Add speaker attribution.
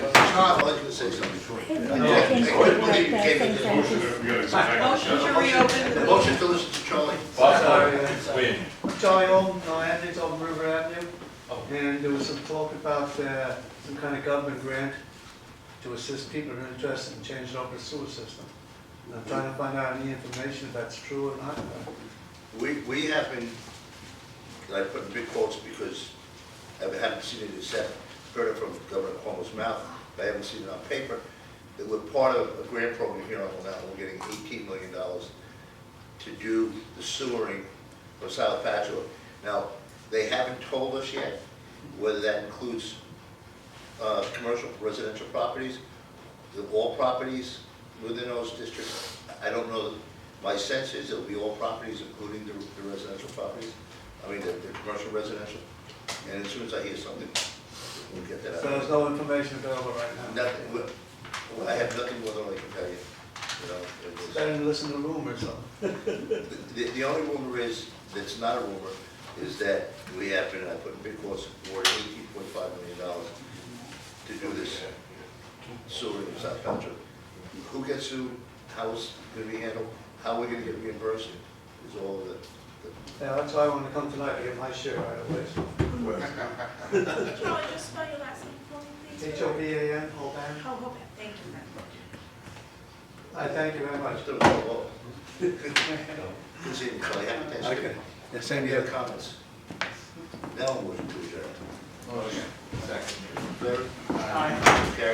Speaker 1: Tom, I'll let you say something.
Speaker 2: Thank you.
Speaker 3: Motion, we gotta go
Speaker 4: Motion to
Speaker 3: back.
Speaker 4: reopen.
Speaker 1: The motion to listen to Charlie.
Speaker 3: Bob, win.
Speaker 5: Charlie Old, uh, Anthony's on River Avenue, and there was some talk about, uh, some kind of government grant to assist people who are interested in changing over the sewer system. And I'm trying to find out any information if that's true or not.
Speaker 1: We, we have been, and I put in big quotes because I haven't seen it except, heard it from Governor Cuomo's mouth, but I haven't seen it on paper, that we're part of a grant program here on Long Island, we're getting eighteen million dollars to do the sewering of South Patchogue. Now, they haven't told us yet whether that includes, uh, commercial residential properties, the all properties within those districts. I don't know, my sense is it'll be all properties, including the the residential properties, I mean, the, the commercial residential. And as soon as I hear something, we'll get that
Speaker 5: So
Speaker 1: out.
Speaker 5: there's no information available right now.
Speaker 1: Nothing, well, I have nothing more than I can tell you, you know. it was-
Speaker 5: Better than listen to rumors, though.
Speaker 1: The, the only rumor is, that's not a rumor, is that we have been, I put in big quotes, awarded eighteen point five million dollars to do this sewer in South Patrick. Who gets sued, how is it gonna be handled, how are we gonna get reimbursed, is all the, the-
Speaker 5: Yeah, that's why I wanted to come tonight to get my share right away.
Speaker 6: Charlie, just spell your last name for me, please.
Speaker 5: H O B A N, Old
Speaker 6: Oh,
Speaker 5: Bank.
Speaker 6: Hoban, thank you. ma'am.
Speaker 5: I thank you very much.
Speaker 1: I still don't know. Good seeing you, Charlie, happy Thanksgiving.
Speaker 5: Yeah, same
Speaker 1: Any other comments? Now, I'm going to adjourn.
Speaker 3: Second.
Speaker 1: Larry? Aye.